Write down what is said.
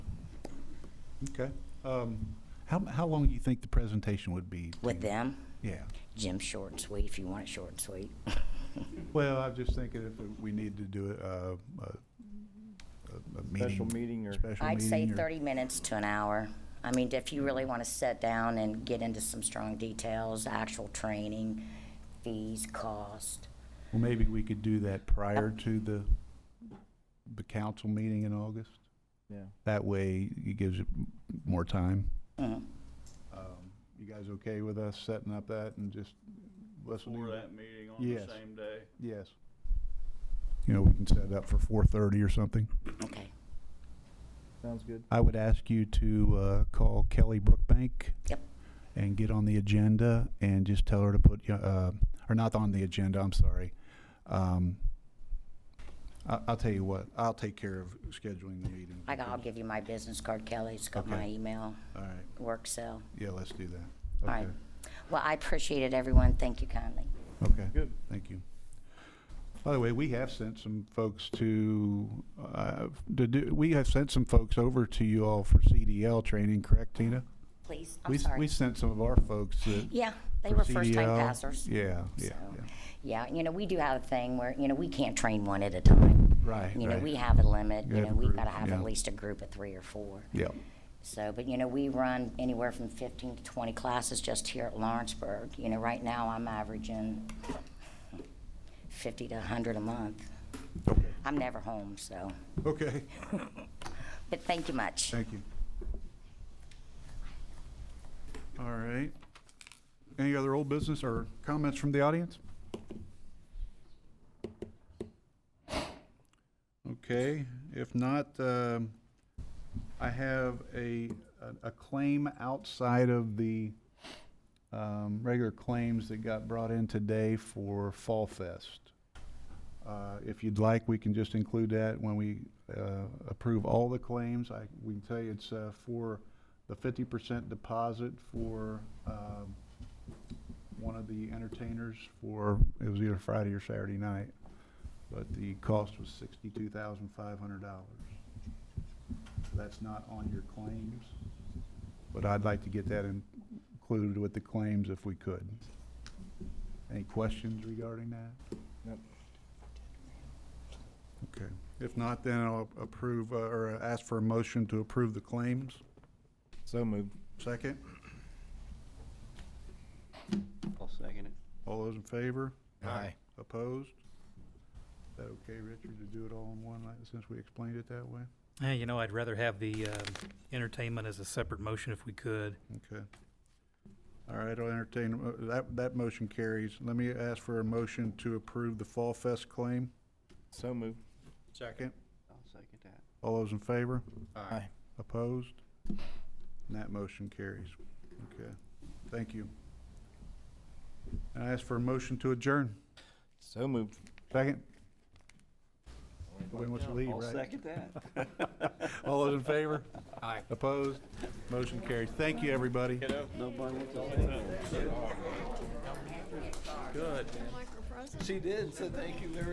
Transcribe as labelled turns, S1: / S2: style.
S1: Okay. Um, How, how long do you think the presentation would be?
S2: with them.
S1: Yeah.
S2: Jim's short and sweet, if you want it short and sweet.
S1: Well, I'm just thinking if we need to do a, a, a meeting.
S3: Special meeting or-
S1: special
S2: I'd say
S1: meeting or-
S2: 30 minutes to an hour. I mean, if you really want to sit down and get into some strong details, actual training, fees, cost.
S1: Well, maybe we could do that prior to the, the council meeting in August.
S3: Yeah.
S1: That way it gives it more time.
S2: Mhm.
S1: Um, You guys okay with us setting up that and just listening?
S4: For that meeting on
S1: Yes.
S4: the same day.
S1: Yes. You know, we can set it up for 4:30 or something.
S2: Okay,
S3: Sounds good.
S1: I would ask you to uh, call Kelly Brookbank
S2: yep,
S1: and get on the agenda and just tell her to put, you- uh, or not on the agenda, I'm sorry. Um, I- I'll tell you what, I'll take care of scheduling the meeting.
S2: I got- I'll give you my business card, Kelly, it's got my
S1: Okay.
S2: email,
S1: All right,
S2: work cell.
S1: yeah, let's do that.
S2: All right.
S1: Okay.
S2: Well, I appreciate it, everyone, thank you kindly.
S1: Okay.
S3: Good.
S1: Thank you. By the way, we have sent some folks to, uh, to do, we have sent some folks over to you all for CDL training, correct, Tina?
S2: Please,
S1: We
S2: I'm
S1: s- We
S2: sorry.
S1: sent some of our folks that.
S2: Yeah, they
S1: for
S2: were first-time
S1: CDL.
S2: passers.
S1: Yeah, yeah,
S2: So,
S1: yeah.
S2: Yeah, you know, we do have a thing where, you know, we can't train one at a time.
S1: Right,
S2: You know,
S1: right.
S2: we have a limit,
S1: You
S2: you
S1: have
S2: know,
S1: a
S2: we've
S1: group,
S2: got to have
S1: yeah.
S2: at least a group of three or four.
S1: Yeah,
S2: So, but you know, we run anywhere from 15 to 20 classes just here at Lawrenceburg. You know, right now I'm averaging 50 to 100 a month.
S1: okay,
S2: I'm never home, so,
S1: okay,
S2: but thank you much.
S1: thank you. All right. Any other old business or comments from the audience? Okay, if not, um, I have a, a- a claim outside of the um, regular claims that got brought in today for Fall Fest. Uh, If you'd like, we can just include that when we uh, approve all the claims. I, we can tell you it's uh, for the 50% deposit for um, one of the entertainers for, it was either Friday or Saturday night, but the cost was $62,500. That's not on your claims, but I'd like to get that in- included with the claims if we could. Any questions regarding that?
S3: Yep.
S1: Okay. If not, then I'll approve, uh, or ask for a motion to approve the claims.
S3: So moved.
S1: Second,
S4: I'll second it.
S1: all those in favor?
S3: Aye.
S1: Opposed? Is that okay, Richard, to do it all in one, like, since we explained it that way?
S5: Hey, you know, I'd rather have the um, entertainment as a separate motion if we could.
S1: Okay. All right, I'll entertain, uh, that, that motion carries. Let me ask for a motion to approve the Fall Fest claim.
S3: So moved.
S1: Second.
S4: I'll second that.
S1: All those in favor?
S3: Aye.
S1: Opposed? And that motion carries. Okay, thank you. And I ask for a motion to adjourn.
S3: So moved.
S1: Second? Nobody wants to leave,
S4: I'll
S1: right?
S4: second that.
S1: All those in favor? Aye. Opposed? Motion carries. Thank you, everybody.
S4: Nobody wants to leave. Good. She did, so thank you, everybody.